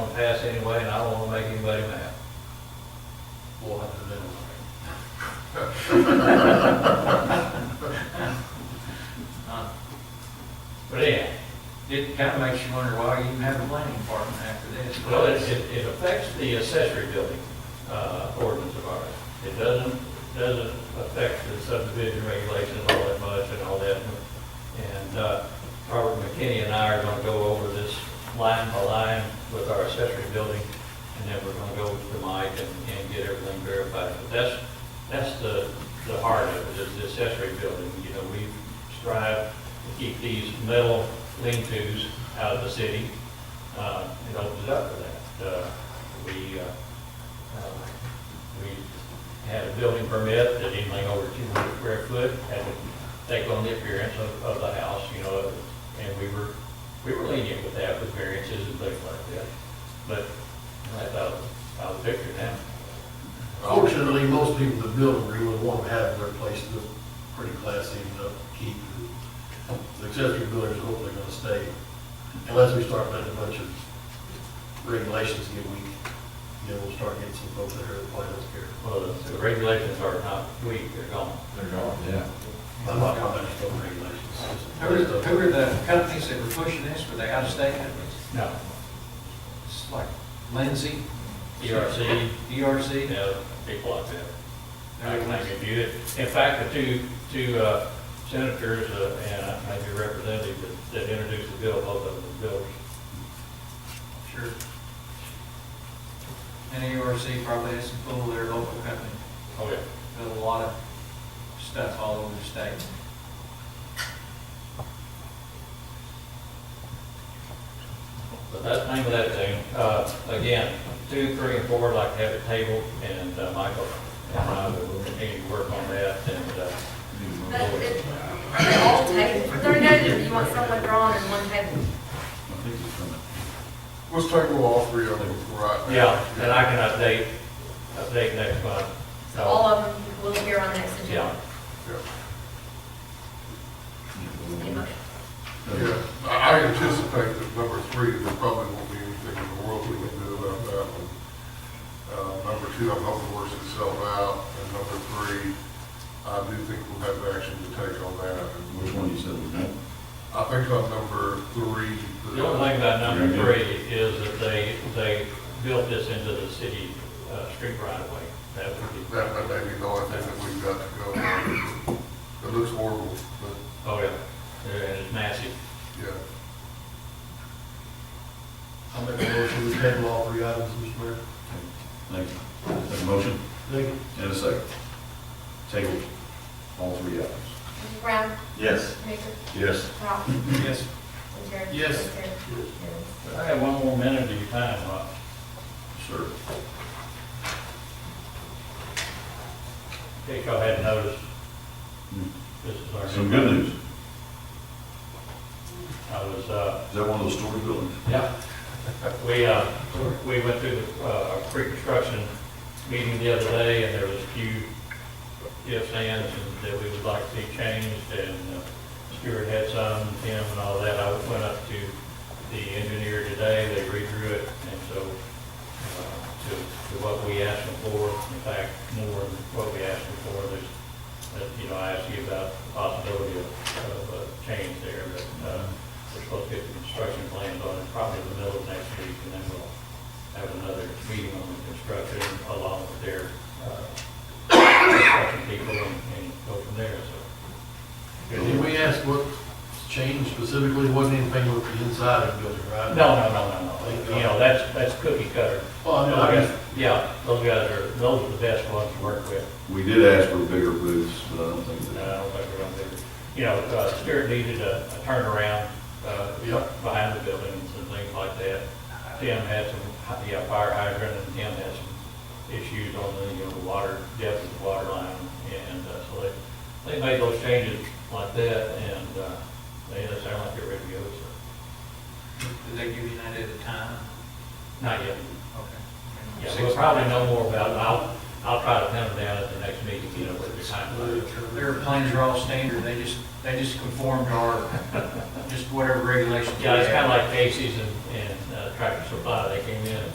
pass anyway, and I don't wanna make anybody mad. We'll have to do it. But yeah, It kind of makes you wonder why you even have a planning department after this. well, it, it it affects the accessory building, uh, ordinance of ours. It doesn't, doesn't affect the subdivision regulations all that much and all that. And, uh, Robert McKinney and I are gonna go over this line by line with our accessory building, and then we're gonna go to Mike and, and get everything verified. But that's, that's the, the heart of it, is the accessory building. You know, we strive to keep these metal lean-tos out of the city. Uh, it opens up for that. Uh, we, uh, uh, we had a building permit that anything over two hundred square foot had to take on the appearance of, of the house, you know, and we were, we were lenient with that with variances and things like that. But I thought, I was picturing that. Fortunately, most people that build a really want to have their place look pretty classy and upkeep. and The accessory buildings are hopefully gonna stay unless we start letting a bunch of regulations get weak. Then we'll start getting some folks that are quite don't care. Well, the- the regulations are not weak, they're gone. They're gone, yeah. I'm not commenting on regulations. it's- Who are, who are the companies that were pushing this? Were they out of state companies? No. It's like Lindsay, E E ERC, you DRC? know, people like that. I Everyone can else? review it. In fact, the two, two uh, senators uh, and uh, maybe a representative that- that introduced the bill, both of them, Bill, Sure. And ERC probably has some pull their local company, oh yeah. built a lot of stuff all over the state. But that's the name of that thing. Uh, Again, two, three, and four, I'd like to have it tabled, and uh, Michael and I will continue to work on that, and uh, But it- Are they all tabled for thirty days, or do you want someone drawn in one table? Let's tackle all three of them right now. yeah, and I can update, update next month. So all of them will appear on next Yeah. agenda. Yeah. Any motion? Yeah, I I anticipate that number three, there probably won't be anything in the world we can do about that one. Uh, number two, I'm hoping works itself out, and number three, I do think we'll have action to take on that. And Which one you said was that? I think on number three. The only thing about number three is that they, they built this into the city uh, street right away. That would be, That, that may be the only thing that we've got to go on. It looks horrible, but, oh yeah, and it's massive. yeah. I'll make a motion to table all three items, Mr. Mayor. Thank you. Take a motion Thank you. and a second. Table, all three items. Mrs. Brown? Yes. Baker? Yes. Powell? Yes. Terry? Yes. I have one more minute of your time, Uh, Rob. Sir. In case y'all hadn't noticed, this is our. Hmm. Some good news. Is I was, uh, that one of those storage buildings? yeah, we, uh, we went through the, uh, pre-construction meeting the other day, and there was a few ifs, ands, and that we would like to see changed, and uh, Stuart had some, Tim and all that. I went up to the engineer today, they redrew it, and so, uh, to, to what we asked them for, in fact, more than what we asked them for, there's, that, you know, I asked you about the possibility of, of a change there, but, uh, we're supposed to get the construction plans on it probably in the middle of next week, and then we'll have another meeting on the construction along with their, uh, construction people and, and go from there, so. Did we ask what changed specifically? Wasn't anything with the inside of the building, right? No, no, no, no, no, you know, that's, that's cookie cutter. Well, I know, Oh, I just- Yeah, those guys are, those are the best ones to work with. We did ask for bigger booths, but I don't think No, that. I don't think we're gonna do it. You know, uh, Spirit needed a a turnaround, uh, behind the buildings and things like that. Tim had some, hy- yeah, fire hydrant, and Tim had some issues on the, you know, the water, depth of the water line, and, uh, so they, they made those changes like that, and, uh, they, they sound like they're ready to go, so. Did they give you an idea of the time? Not yet. Okay. Yeah, we'll probably know more about it, I'll, I'll try to pin them down at the next meeting, you know, with the time. Their planes are all standard, they just, they just conform to our, just whatever regulations. we Yeah, it's have. kinda like Casey's and, and uh, Tractor Supply, they came in and